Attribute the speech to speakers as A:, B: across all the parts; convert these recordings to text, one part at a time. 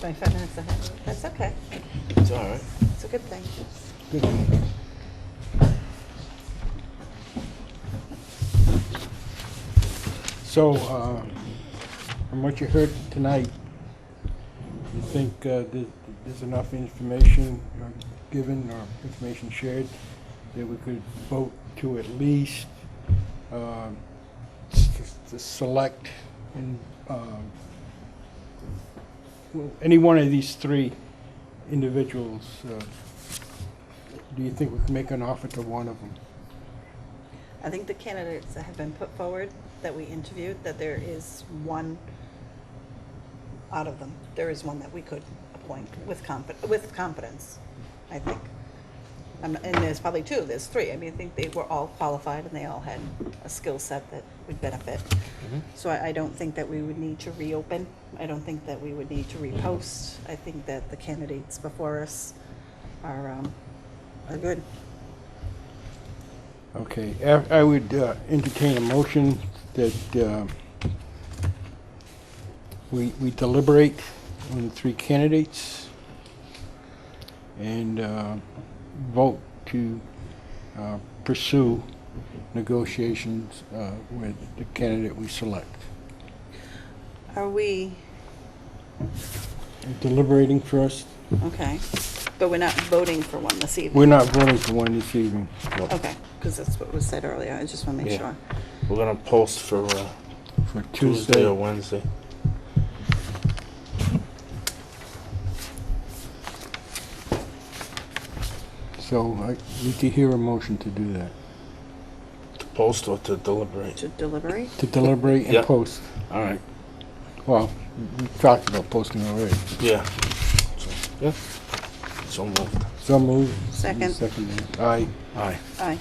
A: 25 minutes ahead. That's okay.
B: It's all right.
A: It's a good thing.
B: Good one.
C: So, uh, from what you heard tonight, you think uh, th- there's enough information uh, given or information shared that we could vote to at least um, s- s- to select and, um, well, any one of these three individuals? uh, Do you think we can make an offer to one of them?
A: I think the candidates that have been put forward that we interviewed, that there is one out of them, there is one that we could appoint with comp, with competence, I think. Um, And there's probably two, there's three. I mean, I think they were all qualified and they all had a skill set that would benefit. So I, I don't think that we would need to reopen. I don't think that we would need to repost. I think that the candidates before us are, um, are good.
C: Okay, I- I would uh, entertain a motion that uh, we we deliberate on the three candidates and uh, vote to uh, pursue negotiations uh, with the candidate we select.
A: Are we,
C: Deliberating first,
A: okay, but we're not voting for one this evening?
C: we're not voting for one this evening.
A: Okay, because that's what was said earlier, I just want to make
B: Yeah.
A: sure.
B: We're gonna post for uh,
C: For
B: Tuesday or Wednesday.
C: So I need to hear a motion to do that,
B: To post or to deliberate.
A: To deliberate?
C: to deliberate and
B: Yeah.
C: post.
B: All right.
C: Well, we talked about posting already.
B: Yeah. So, yeah. So moved.
C: So moved.
A: Second.
C: Seconded. Aye.
B: All right.
A: Aye.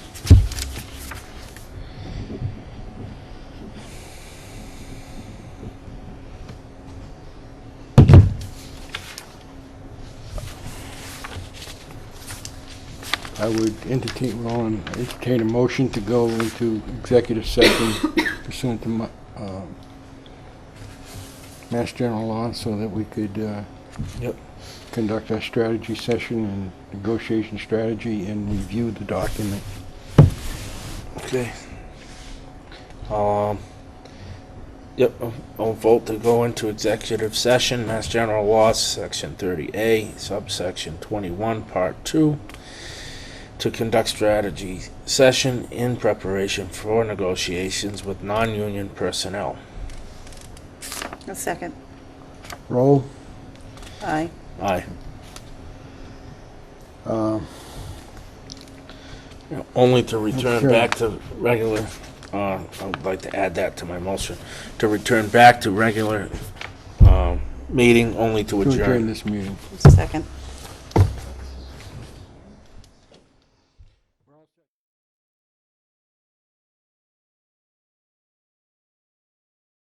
C: I would entertain, well, and entertain a motion to go into executive session pursuant to my, um, Mass General Law so that we could, uh,
B: Yep.
C: conduct our strategy session and negotiation strategy and review the document.
B: Okay. Um. Yep. I'll- I'll vote to go into executive session, Mass General Law, Section 30A, subsection 21, Part 2, to conduct strategy session in preparation for negotiations with non-union personnel.
A: A second.
C: Roll.
A: Aye.
B: Aye.
C: Um,
B: Only to return
C: Sure.
B: back to regular, uh, I would like to add that to my motion, to return back to regular, um, meeting, only to
C: to adjourn
B: adjourn.
C: this meeting.
A: Second.